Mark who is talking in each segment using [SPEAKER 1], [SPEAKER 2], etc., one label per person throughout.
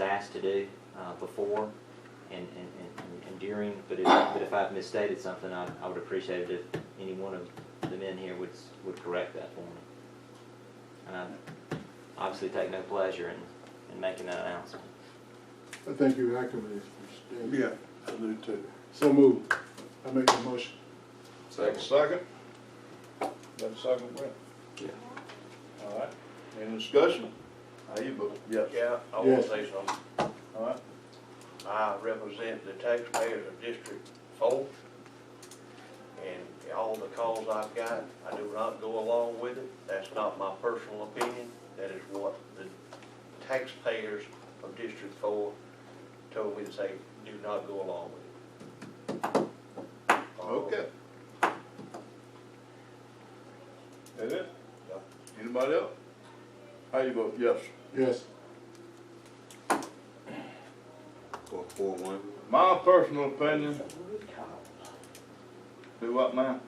[SPEAKER 1] asked to do uh, before and, and, and- and during, but if, but if I've misstated something, I, I would appreciate it if any one of the men here would, s- would correct that for me. And I obviously take no pleasure in, in making that announcement.
[SPEAKER 2] I think you activated Mr. Davis.
[SPEAKER 3] Yeah, I do too.
[SPEAKER 2] So move. I make the motion.
[SPEAKER 4] Second. Second. Got a second, Brent? Yeah. All right, any discussion? How you vote? Yes.
[SPEAKER 5] Yeah, I wanna
[SPEAKER 2] Yes.
[SPEAKER 5] say something.
[SPEAKER 4] All right,
[SPEAKER 5] I represent the taxpayers of District Four. And all the calls I've got, I do not go along with it. That's not my personal opinion. That is what the taxpayers of District Four told me to say, do not go along with it.
[SPEAKER 4] okay. That it? Anybody else? How you vote? Yes.
[SPEAKER 2] Yes.
[SPEAKER 3] Four, four, one.
[SPEAKER 4] My personal opinion, do what, ma'am?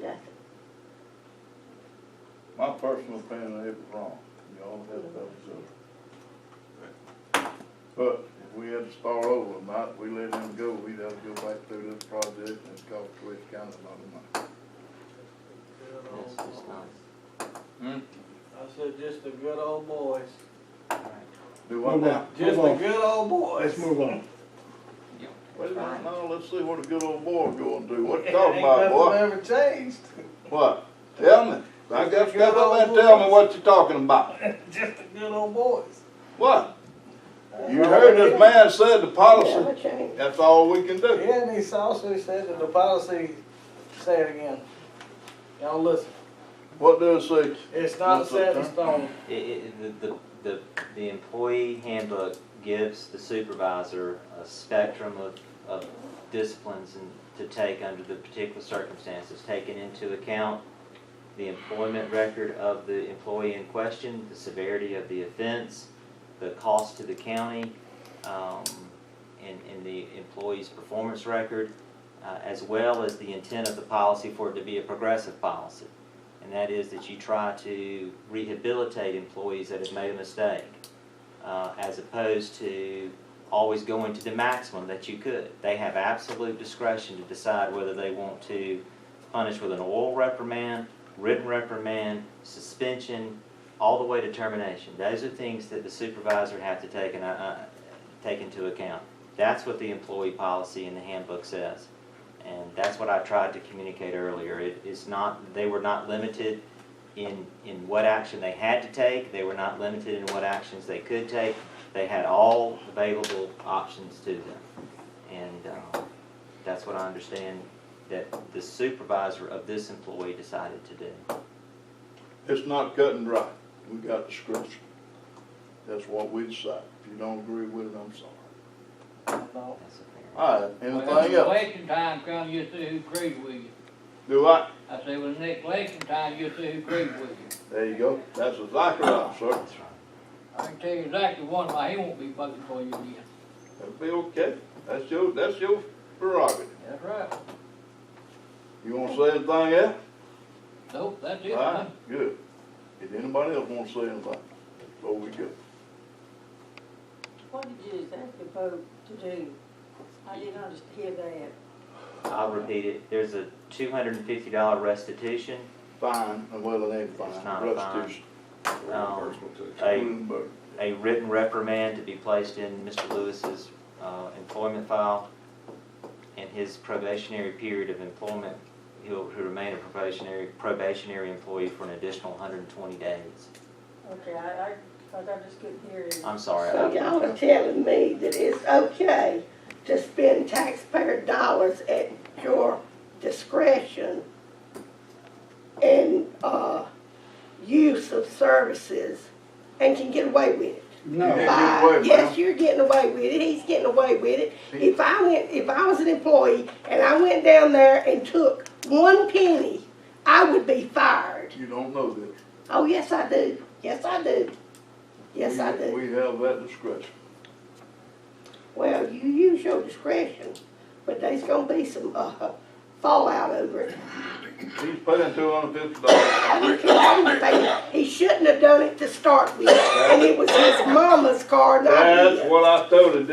[SPEAKER 6] Nothing.
[SPEAKER 4] My personal opinion, it was wrong. You all have that observed. But if we had to start over, not, we let him go, we'd have to go back through this project and it's cost Twitch County a lot of
[SPEAKER 1] That's just nice.
[SPEAKER 4] money.
[SPEAKER 7] I said, just the good old boys.
[SPEAKER 4] Do what
[SPEAKER 2] Move on.
[SPEAKER 4] now?
[SPEAKER 2] Move
[SPEAKER 7] Just the
[SPEAKER 2] on.
[SPEAKER 7] good old boys.
[SPEAKER 2] Let's move on.
[SPEAKER 4] Wait a minute, now, let's see what a good old boy going to do. What you
[SPEAKER 7] Ain't
[SPEAKER 4] talking about,
[SPEAKER 7] nothing
[SPEAKER 4] boy?
[SPEAKER 7] ever changed.
[SPEAKER 4] What? Tell me. I
[SPEAKER 7] Just
[SPEAKER 4] got
[SPEAKER 7] a
[SPEAKER 4] to step
[SPEAKER 7] good
[SPEAKER 4] up and
[SPEAKER 7] old
[SPEAKER 4] tell
[SPEAKER 7] boy.
[SPEAKER 4] me what you talking about.
[SPEAKER 7] Just the good old boys.
[SPEAKER 4] What? You heard this man said the
[SPEAKER 6] Never
[SPEAKER 4] policy,
[SPEAKER 6] change.
[SPEAKER 4] that's all we can do.
[SPEAKER 7] Yeah, and he also said that the policy, say it again. Y'all listen,
[SPEAKER 4] What does it say?
[SPEAKER 7] it's not
[SPEAKER 4] What's
[SPEAKER 7] set in
[SPEAKER 4] up, sir?
[SPEAKER 7] stone.
[SPEAKER 1] It, it, the, the, the, the employee handbook gives the supervisor a spectrum of, of disciplines and to take under the particular circumstances, taking into account the employment record of the employee in question, the severity of the offense, the cost to the county, um, and, and the employee's performance record, uh, as well as the intent of the policy for it to be a progressive policy. And that is that you try to rehabilitate employees that have made a mistake, uh, as opposed to always going to the maximum that you could. They have absolute discretion to decide whether they want to punish with an oral reprimand, written reprimand, suspension, all the way to termination. Those are things that the supervisor have to take and, uh, take into account. That's what the employee policy in the handbook says. And that's what I tried to communicate earlier. It is not, they were not limited in, in what action they had to take. They were not limited in what actions they could take. They had all available options to them. And, um, that's what I understand that the supervisor of this employee decided to do.
[SPEAKER 4] It's not cut and dry. We got discretion. That's what we decide. If you don't agree with it, I'm sorry.
[SPEAKER 7] No.
[SPEAKER 1] That's a fair-
[SPEAKER 4] All right,
[SPEAKER 8] Well,
[SPEAKER 4] anything
[SPEAKER 8] the
[SPEAKER 4] else?
[SPEAKER 8] election time comes, you'll see who agrees with you.
[SPEAKER 4] Do I?
[SPEAKER 8] I say, when the next election time, you'll see who agrees with you.
[SPEAKER 4] There you go. That's a Zachariah, sir.
[SPEAKER 1] That's right.
[SPEAKER 8] I can tell you exactly one, why he won't be voting for you again.
[SPEAKER 4] That'll be okay. That's your, that's your prerogative.
[SPEAKER 8] That's right.
[SPEAKER 4] You wanna say anything else?
[SPEAKER 8] Nope, that's
[SPEAKER 4] All
[SPEAKER 8] it. huh?
[SPEAKER 4] right, good. If anybody else wanna say anything, so we go.
[SPEAKER 6] What did you ask the vote to do? I did not just hear that.
[SPEAKER 1] I'll repeat it. There's a two hundred and fifty dollar restitution,
[SPEAKER 4] Fine, and well, it ain't fine.
[SPEAKER 1] It's not a fine.
[SPEAKER 4] Restitution.
[SPEAKER 1] um,
[SPEAKER 3] Reimbursement too.
[SPEAKER 1] a
[SPEAKER 4] Bloomberg.
[SPEAKER 1] a written reprimand to be placed in Mr. Lewis's uh, employment file, and his probationary period of employment, he'll, he'll remain a probationary, probationary employee for an additional 120 days.
[SPEAKER 6] Okay, I, I, 'cause I just couldn't hear it.
[SPEAKER 1] I'm sorry.
[SPEAKER 6] So
[SPEAKER 1] I-
[SPEAKER 6] y'all are telling me that it's okay to spend taxpayer dollars at your discretion and, uh, use of services and can get away with it?
[SPEAKER 4] You
[SPEAKER 2] No.
[SPEAKER 4] can't get away,
[SPEAKER 6] By- Yes,
[SPEAKER 4] ma'am.
[SPEAKER 6] you're getting away with it, he's getting away with it. If I went, if I was an employee and I went down there and took one penny, I would be fired.
[SPEAKER 4] You don't know this.
[SPEAKER 6] Oh, yes, I do, yes, I do, yes, I
[SPEAKER 4] We-
[SPEAKER 6] do.
[SPEAKER 4] We have that discretion.
[SPEAKER 6] Well, you use your discretion, but there's gonna be some, uh, fallout over it.
[SPEAKER 4] He's paying two hundred fifty dollars.
[SPEAKER 6] He continued to pay it. He shouldn't have done it to start with, and it was his mama's car, not his.
[SPEAKER 4] That's what I told him.